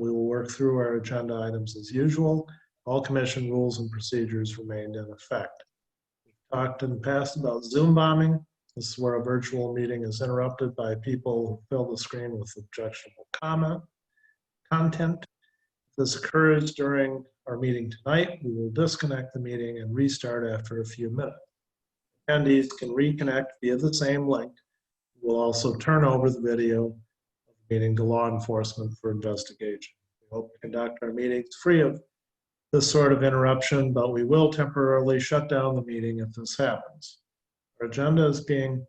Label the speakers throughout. Speaker 1: work through our agenda items as usual. All commission rules and procedures remained in effect. We Talked in the past about Zoom bombing. This is where a virtual meeting is interrupted by people who fill the screen with objectionable comment, content. If this occurs during our meeting tonight, we will disconnect the meeting and restart after a few minutes. Attendees can reconnect via the same link. We'll also turn over the video of the meeting to law enforcement for investigation. We hope to conduct our meetings free of this sort of interruption, but we will temporarily shut down the meeting if this happens. Our agenda is being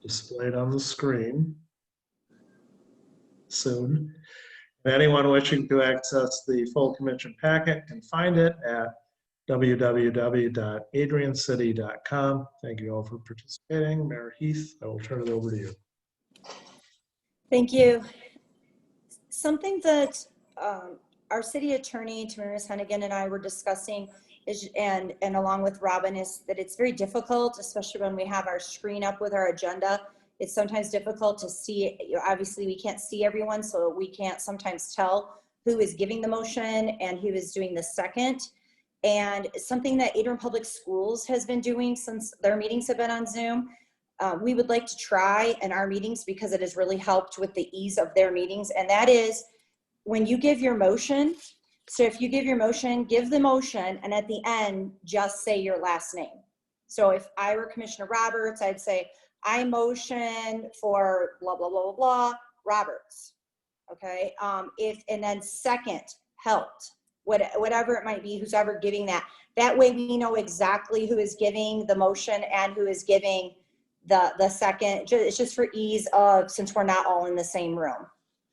Speaker 1: displayed on the screen soon. And Anyone wishing to access the full commission packet can find it at www.adriancity.com. Thank you all for participating. Mayor Heath, I will turn it over to you.
Speaker 2: Thank you. Something that um, our city attorney, Tamaris Hennigan, and I were discussing is, and, and along with Robin, is that it's very difficult, especially when we have our screen up with our agenda. It's sometimes difficult to see, you know, obviously, we can't see everyone, so we can't sometimes tell who is giving the motion and who is doing the second. And something that Adrian Public Schools has been doing since their meetings have been on Zoom uh, we would like to try in our meetings because it has really helped with the ease of their meetings. And that is when you give your motion, so if you give your motion, give the motion and at the end, just say your last name. So if I were Commissioner Roberts, I'd say, I motion for blah, blah, blah, blah, blah, Roberts. Okay, um, if, and then second, helped, what- whatever it might be, who's ever giving that. That way we know exactly who is giving the motion and who is giving the, the second, ju- it's just for ease of, since we're not all in the same room.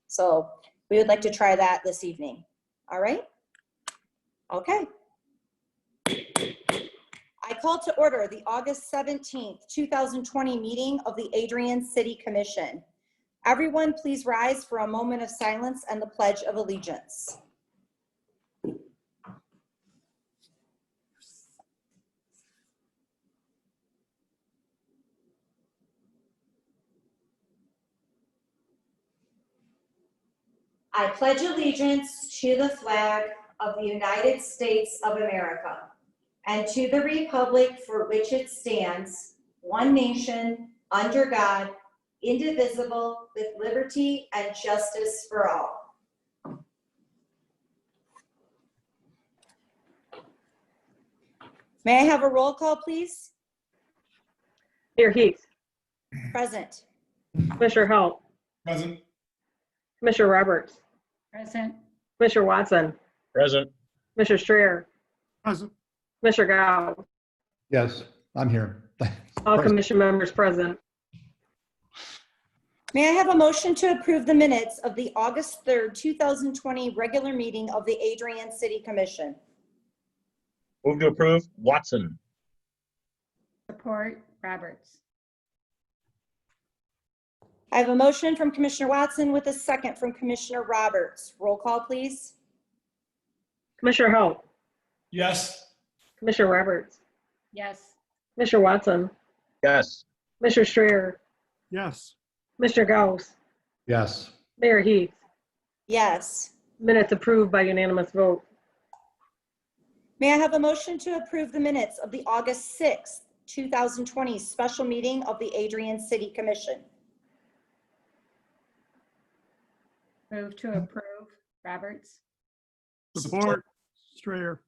Speaker 2: So we would like to try that this evening. All right? Okay. I call to order the August 17th, 2020 meeting of the Adrian City Commission. Everyone, please rise for a moment of silence and the Pledge of Allegiance. I pledge allegiance to the flag of the United States of America and to the republic for which it stands, one nation, under God, indivisible, with liberty and justice for all. May I have a roll call, please?
Speaker 3: Mayor Heath,
Speaker 2: Present.
Speaker 3: Commissioner Halt,
Speaker 4: Present.
Speaker 3: Commissioner Roberts,
Speaker 5: Present,
Speaker 3: Commissioner Watson,
Speaker 6: Present.
Speaker 3: Commissioner Strayer,
Speaker 4: Present.
Speaker 3: Commissioner Gao,
Speaker 7: Yes, I'm here.
Speaker 3: all
Speaker 7: Present.
Speaker 3: commission members present.
Speaker 2: May I have a motion to approve the minutes of the August 3rd, 2020 regular meeting of the Adrian City Commission?
Speaker 6: Move to approve. Watson.
Speaker 5: support, Roberts.
Speaker 2: I have a motion from Commissioner Watson with a second from Commissioner Roberts. Roll call, please.
Speaker 3: Commissioner Halt,
Speaker 4: Yes.
Speaker 3: Commissioner Roberts,
Speaker 5: Yes,
Speaker 3: Commissioner Watson,
Speaker 6: Yes.
Speaker 3: Commissioner Strayer,
Speaker 4: Yes.
Speaker 3: Commissioner Gauss,
Speaker 7: Yes,
Speaker 3: Mayor Heath,
Speaker 2: Yes.
Speaker 3: minutes approved by unanimous vote.
Speaker 2: May I have a motion to approve the minutes of the August 6th, 2020 special meeting of the Adrian City Commission?
Speaker 5: move to approve, Roberts.
Speaker 4: Support. Strayer.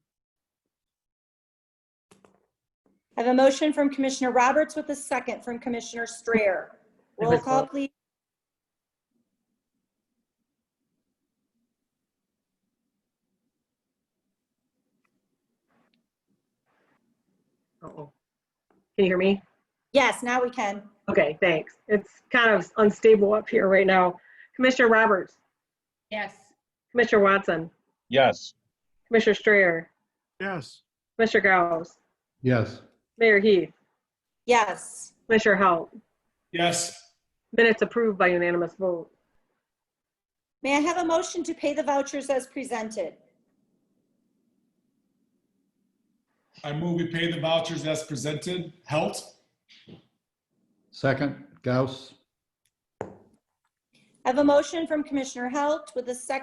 Speaker 2: I have a motion from Commissioner Roberts with a second from Commissioner Strayer. Roll call, please.
Speaker 3: Uh-oh. Can you hear me?
Speaker 2: Yes, now we can.
Speaker 3: Okay, thanks. It's kind of unstable up here right now. Commissioner Roberts,
Speaker 5: Yes,
Speaker 3: Commissioner Watson,
Speaker 6: Yes.
Speaker 3: Commissioner Strayer,
Speaker 4: Yes.
Speaker 3: Commissioner Gauss,
Speaker 7: yes,
Speaker 3: Mayor Heath,
Speaker 2: Yes.
Speaker 3: Commissioner Halt,
Speaker 4: Yes.
Speaker 3: minutes approved by unanimous vote.
Speaker 2: May I have a motion to pay the vouchers as presented?
Speaker 4: I move we pay the vouchers as presented. Helt.
Speaker 7: second, Gauss,
Speaker 2: I have a motion from Commissioner Halt with a second